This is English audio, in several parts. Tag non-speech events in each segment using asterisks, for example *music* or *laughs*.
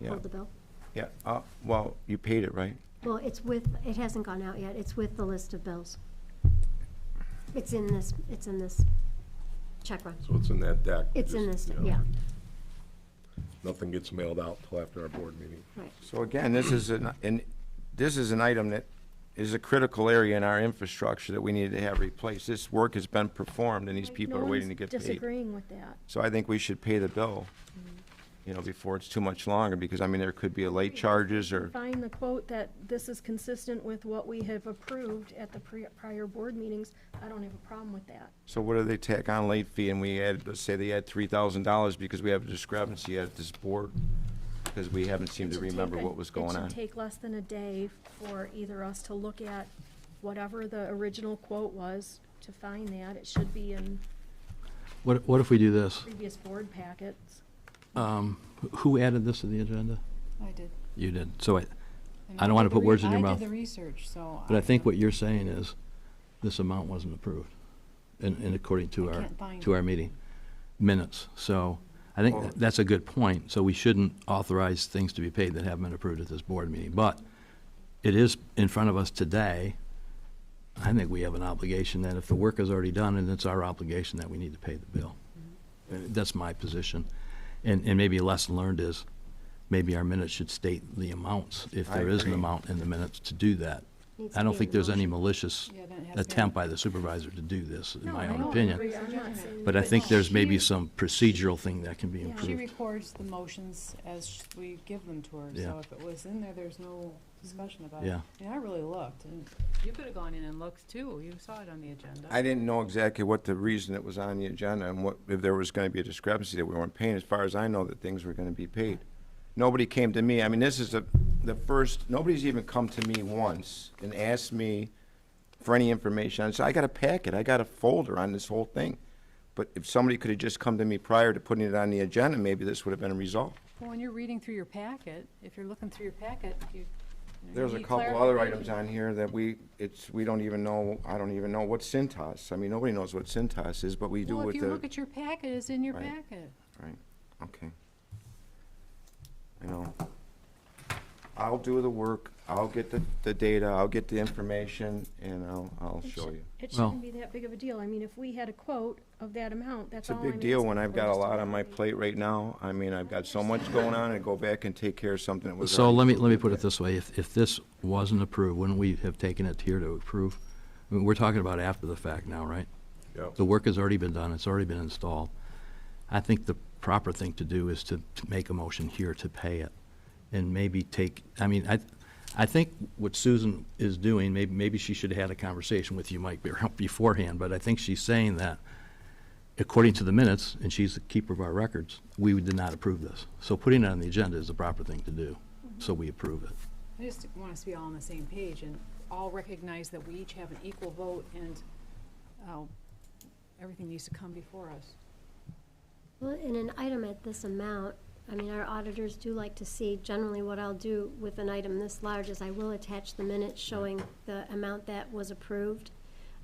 Yeah. Hold the bill? Yeah, uh, well, you paid it, right? Well, it's with, it hasn't gone out yet, it's with the list of bills. It's in this, it's in this check run. So it's in that deck. It's in just, this, you know, yeah, Nothing gets mailed out till after our board meeting. right. So again, this is an, an this is an item that is a critical area in our infrastructure that we need to have replaced. This work has been performed and these people No are waiting to one's get paid. Disagreeing with that. So I think we should pay the bill, you know, before it's too much longer, because I mean, there could be a late charges or, Find the quote that this is consistent with what we have approved at the pre- prior board meetings. I don't have a problem with that. so what do they tack on late fee and we add, let's say they add three thousand dollars because we have a discrepancy at this board? Because we haven't seemed to It should remember take a- what was going It on. should take less than a day for either us to look at whatever the original quote was, to find that. It should be in What, what if we do this? previous board packets. Um, Who added this to the agenda? I did. You did. So I, And I don't wanna did the put re- words in your I mouth. did the research, so. but I think what don't- you're saying is, this amount wasn't approved, and, and according to I our, can't find to it. our meeting minutes. So I think Well- tha- that's a good point. So we shouldn't authorize things to be paid that haven't been approved at this board meeting. But it is in front of us today. I think we have an obligation that if the work is already done, and it's our obligation that we need to pay the bill. Mm-hmm. Uh, That's my position. And, and maybe a lesson learned is, maybe our minutes should state the amounts, if I there is an agree. amount in the minutes to do that. Needs to I don't be in think the there's any motion. malicious Yeah, then it has to be attempt on- by the supervisor to do this, in No, my I own don't opinion. agree. I'm not saying- But I think there's maybe she- some procedural thing that can be Yeah. She improved. records the motions as sh- we give them to her, Yeah. so if it was in there, there's no discussion about it. Yeah. And I really looked, and you could have gone in and looked too, you saw it on the agenda. I didn't know exactly what the reason it was on the agenda and what, if there was gonna be a discrepancy that we weren't paying. As far as I know, that things were gonna be paid. Nobody came to me, I mean, this is the, the first, nobody's even come to me once and asked me for any information. I said, I got a packet, I got a folder on this whole thing. But if somebody could have just come to me prior to putting it on the agenda, maybe this would have been resolved. Well, when you're reading through your packet, if you're looking through your packet, you. you There's a need couple other clarification. items on here that we, it's, we don't even know, I don't even know what Cintas, I mean, nobody knows what Cintas is, but we do Well, with if the. you look at your packet, it's in your Right. packet. Right, okay. I know. I'll do the work, I'll get the, the data, I'll get the information, and I'll, I'll It show shou- you. It Well- shouldn't be that big of a deal. I mean, if we had a quote of that amount, that's It's a all I'm big deal when asking I've for, got a just to lot on know my the- plate right now. I mean, I've got so much going on, and go back and take care of something that was. So already let me, let me approved. put it this way, if, if this wasn't approved, wouldn't we have taken it here to approve? I mean, We're talking about after the fact now, right? Yeah. The work has already been done, it's already been installed. I think the proper thing to do is to, to make a motion here to pay it. And maybe take, I mean, I, I think what Susan is doing, maybe, maybe she should have had a conversation with you, Mike, *laughs* beforehand, but I think she's saying that according to the minutes, and she's the keeper of our records, we did not approve this. So putting it on the agenda is the proper thing to do, so we approve it. I just want us to be all on the same page and all recognize that we each have an equal vote and, uh everything needs to come before us. Well, in an item at this amount, I mean, our auditors do like to see, generally what I'll do with an item this large is I will attach the minutes showing the amount that was approved,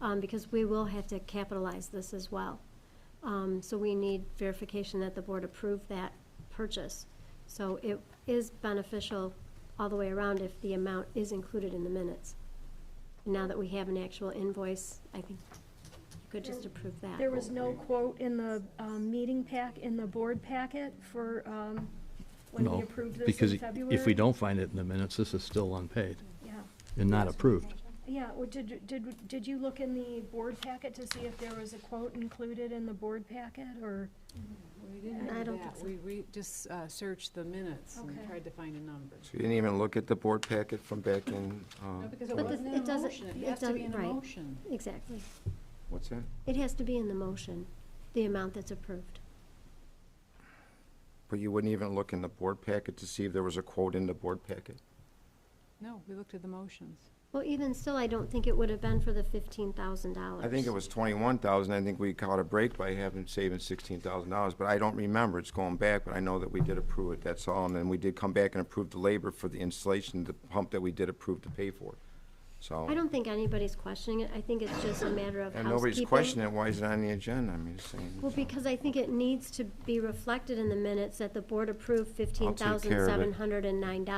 um, because we will have to capitalize this as well. Um, so we need verification that the board approved that purchase. So it is beneficial all the way around if the amount is included in the minutes. Now that we have an actual invoice, I think you could just approve that. There was no quote in the um, meeting pack, in the board packet for um, when No, we approved this because in February? If we don't find it in the minutes, this is still unpaid Yeah, and not approved. yeah, well, did, did, did you look in the board packet to see if there was a quote included in the board packet, or? We didn't I do don't think that. so. We, we just uh, searched the minutes and Okay. tried to find a number. So you didn't even look at the board packet from back in, No, uh, because it But wasn't this- in it a doesn't- motion. It it has to be doesn't- in a right. motion. Exactly. what's that? It has to be in the motion, the amount that's approved. But you wouldn't even look in the board packet to see if there was a quote in the board packet? No, we looked at the motions. Well, even still, I don't think it would have been for the fifteen thousand dollars. I think it was twenty-one thousand, I think we caught a break by having, saving sixteen thousand dollars, but I don't remember, it's going back, but I know that we did approve it, that's all, and then we did come back and approve the labor for the installation, of the pump that we did approve to pay for. so. I don't think anybody's questioning it. I think it's just a matter of And housekeeping. nobody's questioning it, why is it on the agenda? I mean, it's saying. Well, because I think it needs to be reflected in the minutes that the board approved care of it. fifteen thousand seven hundred and nine dollars.